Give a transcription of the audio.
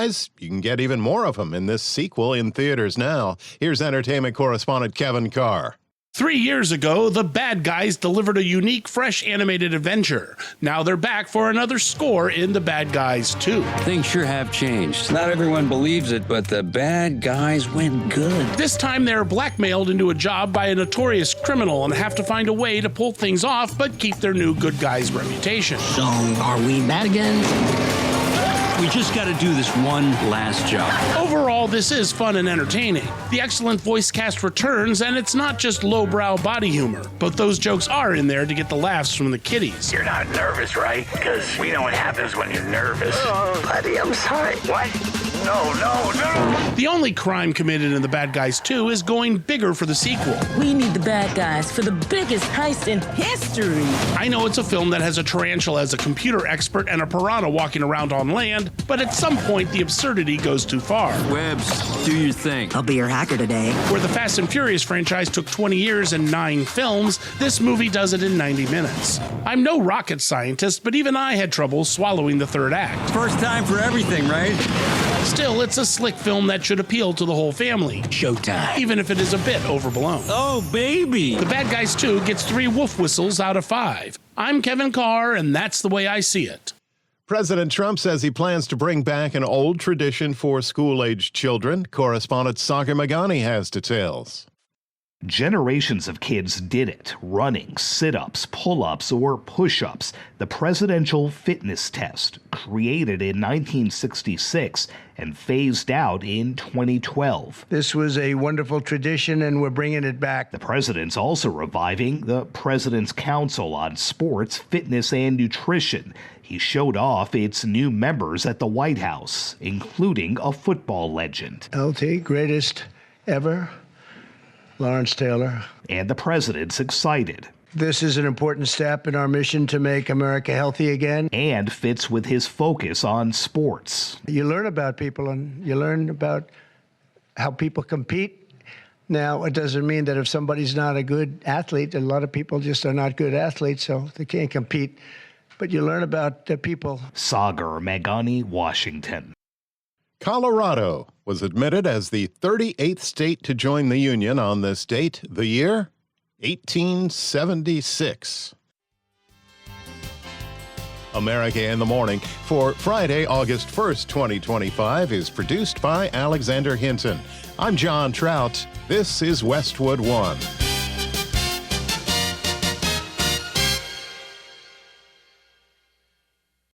You can get even more of them in this sequel in theaters now. Here's entertainment correspondent Kevin Carr. Three years ago, the bad guys delivered a unique, fresh animated adventure. Now they're back for another score in The Bad Guys 2. Things sure have changed. Not everyone believes it, but the bad guys went good. This time they're blackmailed into a job by a notorious criminal and have to find a way to pull things off but keep their new good guys' reputation. So, are we bad again? We just got to do this one last job. Overall, this is fun and entertaining. The excellent voice cast returns, and it's not just lowbrow body humor, but those jokes are in there to get the laughs from the kiddies. You're not nervous, right? Because we know what happens when you're nervous. Oh, buddy, I'm sorry. What? No, no, no. The only crime committed in The Bad Guys 2 is going bigger for the sequel. We need the bad guys for the biggest heist in history. I know it's a film that has a tarantula as a computer expert and a piranha walking around on land, but at some point the absurdity goes too far. Webs, do your thing. I'll be your hacker today. Where the Fast and Furious franchise took 20 years and nine films, this movie does it in 90 minutes. I'm no rocket scientist, but even I had trouble swallowing the third act. First time for everything, right? Still, it's a slick film that should appeal to the whole family. Showtime. Even if it is a bit overblown. Oh, baby. The Bad Guys 2 gets three wolf whistles out of five. I'm Kevin Carr, and that's the way I see it. President Trump says he plans to bring back an old tradition for school aged children. Correspondent Sagar Magani has details. Generations of kids did it running, sit ups, pull ups, or push ups. The presidential fitness test, created in 1966 and phased out in 2012. This was a wonderful tradition, and we're bringing it back. The president's also reviving the President's Council on Sports, Fitness, and Nutrition. He showed off its new members at the White House, including a football legend. LT, greatest ever. Lawrence Taylor. And the president's excited. This is an important step in our mission to make America healthy again. And fits with his focus on sports. You learn about people and you learn about how people compete. Now, it doesn't mean that if somebody's not a good athlete, a lot of people just are not good athletes, so they can't compete. But you learn about the people. Sagar Magani, Washington. Colorado was admitted as the 38th state to join the Union on this date, the year 1876. America in the Morning for Friday, August 1st, 2025 is produced by Alexander Hinton. I'm John Trout. This is Westwood One.